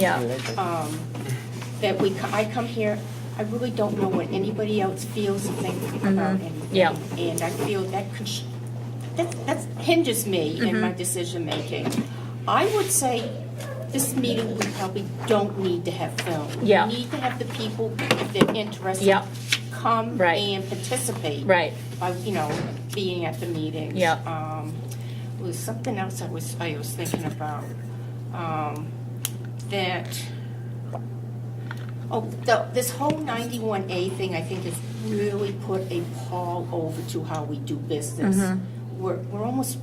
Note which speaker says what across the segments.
Speaker 1: Yeah,
Speaker 2: um, that we, co- I come here, I really don't know what anybody else feels and thinks about
Speaker 1: Mhm.
Speaker 2: anything.
Speaker 1: Yeah.
Speaker 2: And I feel that, cons- that that's- hinges me
Speaker 1: Mm-hmm.
Speaker 2: in my decision-making. I would say this meeting, we probably don't need to have film.
Speaker 1: Yeah.
Speaker 2: We need to have the people that are interested.
Speaker 1: Yeah.
Speaker 2: Come
Speaker 1: Right.
Speaker 2: and participate.
Speaker 1: Right.
Speaker 2: By, you know, being at the meetings.
Speaker 1: Yeah.
Speaker 2: Um, there was something else I was, I was thinking about, um, that, oh, the, this whole ninety-one A thing, I think, has really put a pall over to how we do business. We're, we're almost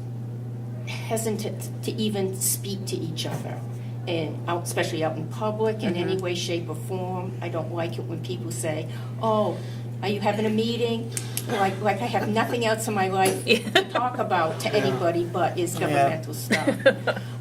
Speaker 2: hesitant to even speak to each other, and out, especially out in public in any way, shape, or form. I don't like it when people say, "Oh, are you having a meeting?" Like, like I have nothing else in my life to talk about to anybody but is governmental stuff.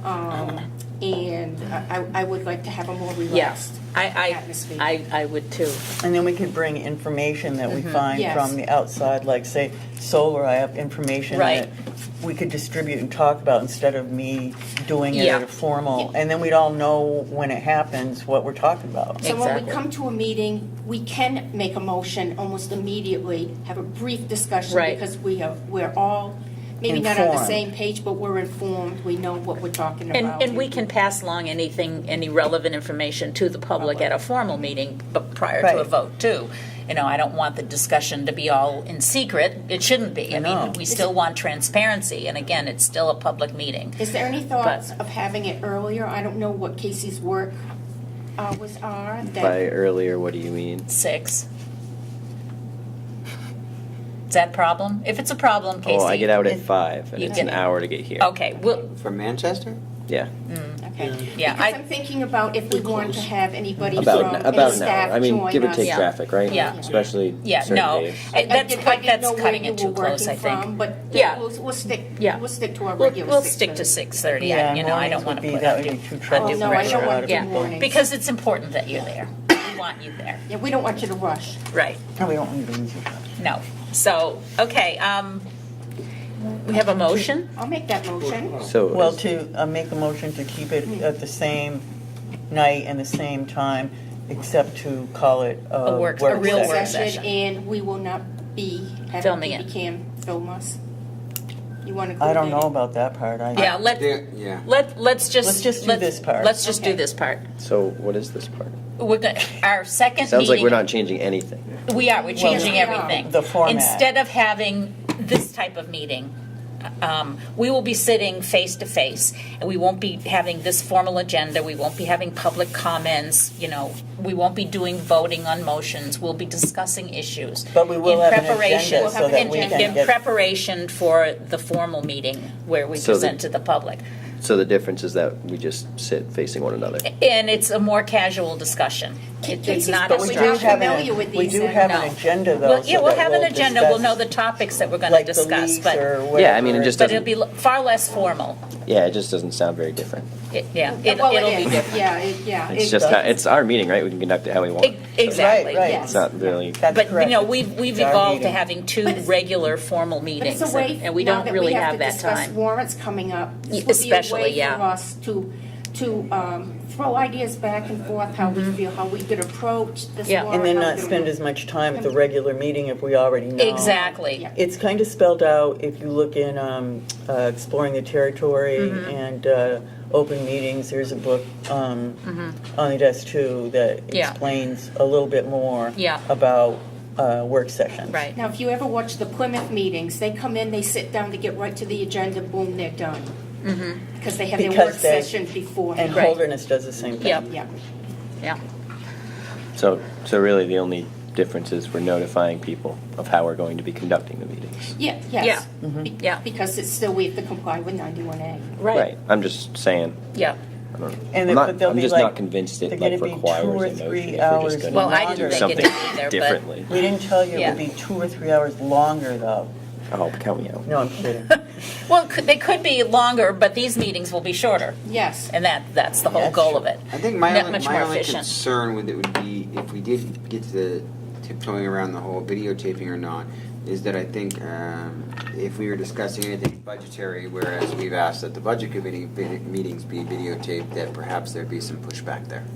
Speaker 2: Um, and I, I- I would like to have a more relaxed
Speaker 3: Yes, I,
Speaker 2: atmosphere.
Speaker 3: I, I, I would too.
Speaker 4: And then we could bring information that we
Speaker 3: Mm-hmm.
Speaker 4: find
Speaker 2: Yes.
Speaker 4: from the outside, like say solar, I have information
Speaker 3: Right.
Speaker 4: that we could distribute and talk about instead of me doing it at
Speaker 3: Yeah.
Speaker 4: a formal. And then we'd all know when it happens, what we're talking about.
Speaker 2: So when we
Speaker 3: Exactly.
Speaker 2: come to a meeting, we can make a motion almost immediately, have a brief discussion.
Speaker 3: Right.
Speaker 2: Because we are, we're all, maybe not on the
Speaker 4: Informed.
Speaker 2: same page, but we're informed, we know what we're talking about.
Speaker 3: And, and we can pass along anything, any relevant information to the public at a
Speaker 2: Mm-hmm.
Speaker 3: formal meeting, but prior to a
Speaker 4: Right.
Speaker 3: vote too. You know, I don't want the discussion to be all in secret. It shouldn't be. I mean,
Speaker 4: No.
Speaker 3: we still want transparency, and again, it's still a public meeting.
Speaker 2: Is there any thoughts of having it earlier? I don't know what Casey's work hours are. that-
Speaker 5: By earlier, what do you mean?
Speaker 3: Six. Is that a problem? If it's a problem, Casey.
Speaker 5: Oh, I get out at five, and
Speaker 3: You
Speaker 5: it's
Speaker 3: get-
Speaker 5: an hour to get here.
Speaker 3: Okay, well,
Speaker 6: From Manchester?
Speaker 5: Yeah,
Speaker 2: Okay.
Speaker 3: yeah,
Speaker 2: Because I'm
Speaker 3: I,
Speaker 2: thinking about if we want to have anybody from,
Speaker 5: about
Speaker 2: any
Speaker 5: about an
Speaker 2: staff
Speaker 5: hour. I mean,
Speaker 2: join
Speaker 5: give or
Speaker 2: us.
Speaker 5: take
Speaker 3: Yeah.
Speaker 5: traffic, right?
Speaker 3: Yeah.
Speaker 5: Especially
Speaker 3: yeah,
Speaker 5: certain
Speaker 3: no.
Speaker 5: days.
Speaker 3: I- That's,
Speaker 2: I didn't- I didn't know
Speaker 3: that's
Speaker 2: where
Speaker 3: cutting
Speaker 2: you
Speaker 3: it too
Speaker 2: were
Speaker 3: close, I
Speaker 2: working from,
Speaker 3: think.
Speaker 2: But
Speaker 3: Yeah.
Speaker 2: we'll, we'll stick,
Speaker 3: Yeah.
Speaker 2: we'll stick to our
Speaker 3: We'll,
Speaker 2: regular
Speaker 3: we'll stick to
Speaker 2: 6:30.
Speaker 3: six thirty. I You know, I don't
Speaker 4: mornings
Speaker 3: want
Speaker 4: would
Speaker 3: to
Speaker 4: be-
Speaker 3: put
Speaker 4: That
Speaker 3: undue
Speaker 4: would be too
Speaker 3: undue
Speaker 4: trouble.
Speaker 2: Oh, no, I
Speaker 3: pressure
Speaker 2: don't
Speaker 3: on
Speaker 2: want to do
Speaker 3: it.
Speaker 2: mornings.
Speaker 3: Because it's important that you're there. We want you there.
Speaker 2: Yeah, we don't want you to rush.
Speaker 3: Right.
Speaker 4: No, Oh, we don't need to use it.
Speaker 3: No. So, okay, um, we have a motion?
Speaker 2: I'll make that motion.
Speaker 5: So
Speaker 4: Well,
Speaker 5: is-
Speaker 4: to uh, make a motion to keep it at the same night and the same time, except to call it a
Speaker 3: A
Speaker 4: work
Speaker 3: work- a
Speaker 4: session.
Speaker 3: real work
Speaker 2: session,
Speaker 3: session.
Speaker 2: and we will not be having
Speaker 3: Filming it.
Speaker 2: BB Cam film us. You want to?
Speaker 4: I don't know about that part. I-
Speaker 3: Yeah, let,
Speaker 6: Uh, There- Yeah.
Speaker 3: let, let's just.
Speaker 4: Let's just do this part.
Speaker 3: Let's just do
Speaker 2: Okay.
Speaker 3: this part.
Speaker 5: so what is this part?
Speaker 3: We're going, our second meeting.
Speaker 5: Sounds like we're not changing anything.
Speaker 3: We are, we're changing
Speaker 2: we are.
Speaker 3: everything.
Speaker 4: The format.
Speaker 3: Instead of having this type of meeting, um, we will be sitting face to face, and we won't be having this formal agenda, we won't be having public comments, you know, we won't be doing voting on motions, we'll be discussing issues.
Speaker 4: But we will
Speaker 3: in
Speaker 4: have an
Speaker 3: preparation-
Speaker 4: agenda
Speaker 2: We'll have so an that we
Speaker 3: in-
Speaker 2: can
Speaker 3: In
Speaker 4: get-
Speaker 3: preparation for the formal meeting where we
Speaker 5: So the-
Speaker 3: present to the public.
Speaker 5: So the difference is that we just sit facing one another.
Speaker 3: And it's a more casual discussion. It- It's
Speaker 2: Casey's
Speaker 3: not a
Speaker 2: But
Speaker 4: We
Speaker 2: we're
Speaker 4: do
Speaker 2: not
Speaker 3: structure.
Speaker 4: have
Speaker 2: familiar
Speaker 4: an,
Speaker 2: with
Speaker 4: we
Speaker 2: these,
Speaker 4: do
Speaker 2: uh,
Speaker 4: have an
Speaker 3: no.
Speaker 4: agenda though.
Speaker 3: Well, yeah,
Speaker 4: so
Speaker 3: we'll
Speaker 4: that
Speaker 3: have an agenda, we'll know the
Speaker 4: discuss,
Speaker 3: topics that we're going to
Speaker 4: like the
Speaker 3: discuss,
Speaker 4: lease
Speaker 3: but.
Speaker 4: or
Speaker 5: Yeah, I mean, it
Speaker 4: whatever.
Speaker 5: just
Speaker 3: But
Speaker 5: doesn't-
Speaker 3: it'll be l- far less formal.
Speaker 5: Yeah, it just doesn't sound very different.
Speaker 3: It- Yeah, it-
Speaker 2: Well,
Speaker 3: it'll
Speaker 2: it
Speaker 3: be
Speaker 2: is,
Speaker 3: different.
Speaker 2: yeah, it, yeah.
Speaker 5: It's
Speaker 2: it-
Speaker 5: just not. It's our meeting, right? We can conduct it how we want.
Speaker 3: E- Exactly.
Speaker 4: Right, right.
Speaker 2: Yes.
Speaker 5: It's not really.
Speaker 4: That's
Speaker 3: But, you
Speaker 4: correct.
Speaker 3: know, we've, we've
Speaker 4: It's our
Speaker 3: evolved to
Speaker 4: meeting.
Speaker 3: having two regular formal
Speaker 2: But it's
Speaker 3: meetings,
Speaker 2: a way,
Speaker 3: and and we
Speaker 2: now
Speaker 3: don't
Speaker 2: that
Speaker 3: really
Speaker 2: we have
Speaker 3: have
Speaker 2: to
Speaker 3: that
Speaker 2: discuss
Speaker 3: time.
Speaker 2: warrants coming up.
Speaker 3: Y-
Speaker 2: This would be a
Speaker 3: especially,
Speaker 2: way
Speaker 3: yeah.
Speaker 2: for us to, to um, throw ideas back and forth, how we feel, how we could approach this
Speaker 3: Mm-hmm. Yeah.
Speaker 2: warrant.
Speaker 4: And then
Speaker 2: how we
Speaker 4: not
Speaker 2: could-
Speaker 4: spend as much time at the regular meeting if we already know.
Speaker 3: Exactly.
Speaker 2: Yeah.
Speaker 4: It's kind of spelled out if you look in um, uh, Exploring the Territory
Speaker 3: Mm-hmm.
Speaker 4: and uh, Open Meetings, there's a book um, on the desk too that
Speaker 3: Mm-hmm. Yeah.
Speaker 4: explains a little bit more
Speaker 3: Yeah.
Speaker 4: about uh, work sessions.
Speaker 3: Right.
Speaker 2: Now, if you ever watch the Plymouth meetings, they come in, they sit down, they get right to the agenda, boom, they're done.
Speaker 3: Mm-hmm.
Speaker 2: Because they have their work
Speaker 4: Because they-
Speaker 2: session before.
Speaker 4: And
Speaker 3: Right.
Speaker 4: Holderness does the same thing.
Speaker 3: Yep,
Speaker 2: Yeah.
Speaker 3: yeah.
Speaker 5: So so really, the only difference is we're notifying people of how we're going to be conducting the meetings.
Speaker 2: Yeah, yes. Be-
Speaker 3: yeah.
Speaker 2: Because it's still, we have to comply with 91A.
Speaker 5: Right. I'm just saying.
Speaker 3: Yeah.
Speaker 5: I don't know.
Speaker 4: And
Speaker 5: I'm,
Speaker 4: it-
Speaker 5: not,
Speaker 4: but they'll
Speaker 5: I'm
Speaker 4: be
Speaker 5: just
Speaker 4: like-
Speaker 5: not convinced
Speaker 4: they're
Speaker 5: it
Speaker 4: gonna
Speaker 5: like
Speaker 4: be two
Speaker 5: requires
Speaker 4: or
Speaker 5: a motion
Speaker 4: three
Speaker 5: if we're
Speaker 4: hours
Speaker 5: just going to
Speaker 3: Well, I didn't
Speaker 4: longer.
Speaker 5: do
Speaker 3: think it
Speaker 5: something
Speaker 3: did either, but.
Speaker 5: differently.
Speaker 4: We didn't tell you it would
Speaker 3: Yeah.
Speaker 4: be two or three hours longer though.
Speaker 5: Oh, count me out.
Speaker 4: No, I'm kidding.
Speaker 3: Well, could- they could be longer, but these meetings will be shorter,
Speaker 2: Yes.
Speaker 3: and that, that's the whole
Speaker 4: That's
Speaker 3: goal of it.
Speaker 6: I think my
Speaker 3: Not
Speaker 6: only,
Speaker 3: much
Speaker 6: my
Speaker 3: more
Speaker 6: only
Speaker 3: efficient.
Speaker 6: concern with it would be if we did get to the tiptoeing around the whole videotaping or not,
Speaker 1: is that I think um, if we were discussing anything budgetary, whereas we've asked that the budget committee vid- meetings be videotaped, that perhaps there'd be some pushback there.